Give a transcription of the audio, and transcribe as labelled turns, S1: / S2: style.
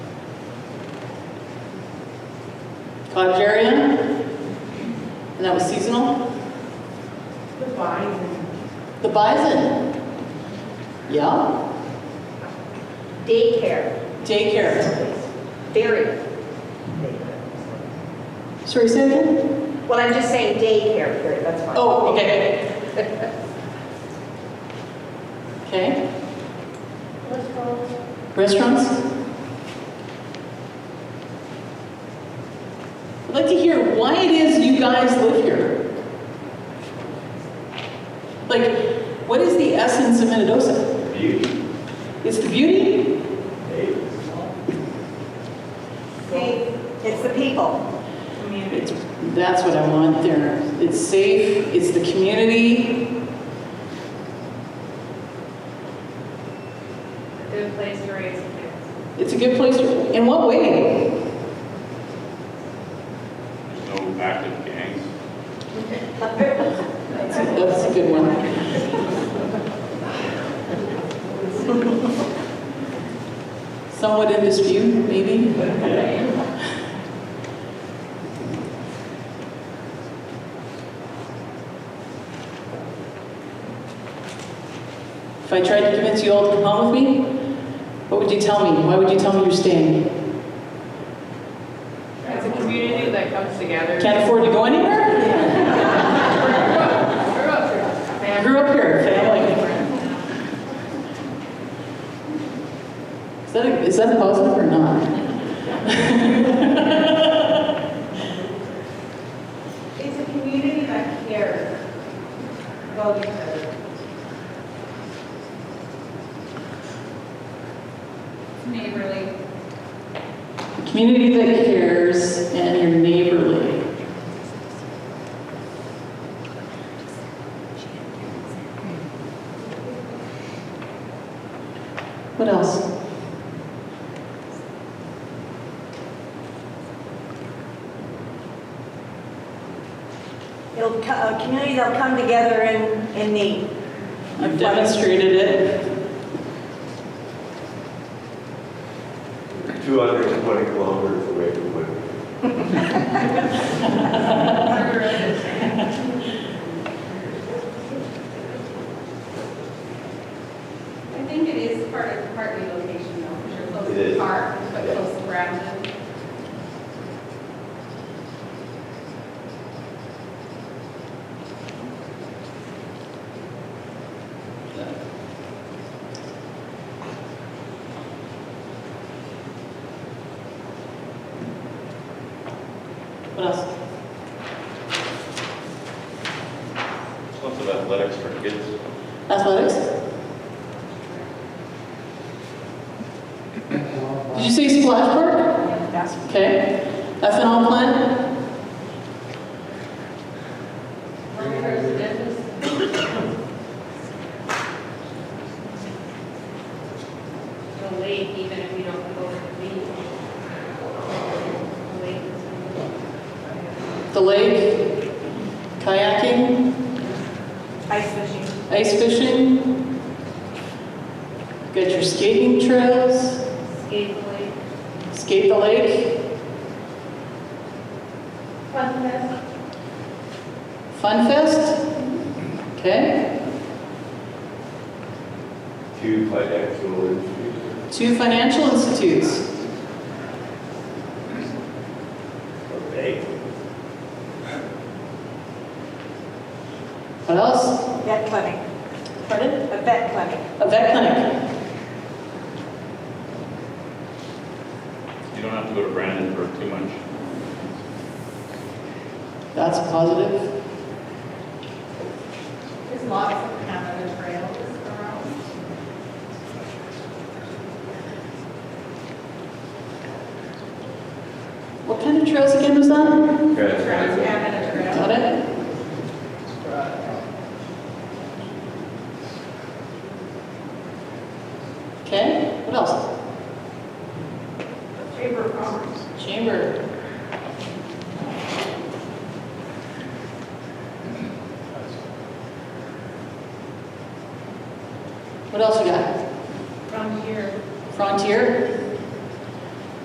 S1: Codgerian, and that was seasonal.
S2: The vine.
S1: The bison, yeah.
S3: Daycare,
S1: Daycare.
S3: dairy.
S1: Sorry, say that again?
S3: Well, I'm just saying daycare, period, that's fine.
S1: Oh, okay. Okay, restaurants? I'd like to hear why it is you guys live here. Like, what is the essence of Minnedosa?
S4: Beauty.
S1: It's the beauty?
S3: See, it's the people.
S2: Community.
S1: It's, that's what I want there. It's safe, it's the community.
S2: Good place to raise kids.
S1: It's a good place, to- in what way?
S4: There's no active gangs.
S1: That's a- That's a good one. Somewhat in dispute, maybe? If I tried to convince you all to come home with me, what would you tell me? Why would you tell me you're staying?
S2: It's a community that comes together.
S1: Can't afford to go anywhere?
S2: Grew up here.
S1: I grew up here, family.
S2: Family.
S1: Is that a, is that a positive or not?
S3: It's a community that cares about each other.
S2: Neighborly.
S1: A community that cares and you're neighborly. What else?
S3: It'll, co- a community that'll come together in, in need.
S1: I've demonstrated it.
S5: Two hundred and twenty kilometers away from Whitby.
S6: I think it is part of partly location though, because you're close
S5: It
S6: to the
S5: is.
S6: park, but
S5: Yeah.
S6: close to Brandon.
S1: What else?
S4: Lots of athletics for kids.
S1: Athletics? Did you say splash park? Okay. Ethanol plant?
S6: Workers, dentists, You'll late even if you don't go to the meeting. You'll Late.
S1: The lake? Kayaking?
S3: Ice fishing.
S1: Ice fishing? Got your skating trails?
S6: Skate late.
S1: Skate the lake,
S6: Fun fest.
S1: Fun Fest, okay?
S5: Two financial institutions,
S1: Two financial institutes,
S5: a bank,
S1: what else?
S3: Vet clinic,
S1: Pardon?
S3: a vet clinic.
S1: A vet clinic,
S4: You don't have to go to Brandon for too much.
S1: that's a positive.
S6: There's lots of Canada trails around.
S1: What kind of trails again was that?
S6: Trans Canada Trail.
S1: Got it? Okay, what else?
S2: Chamber of Commerce.
S1: Chamber. What else we got?
S2: From here.
S1: Frontier?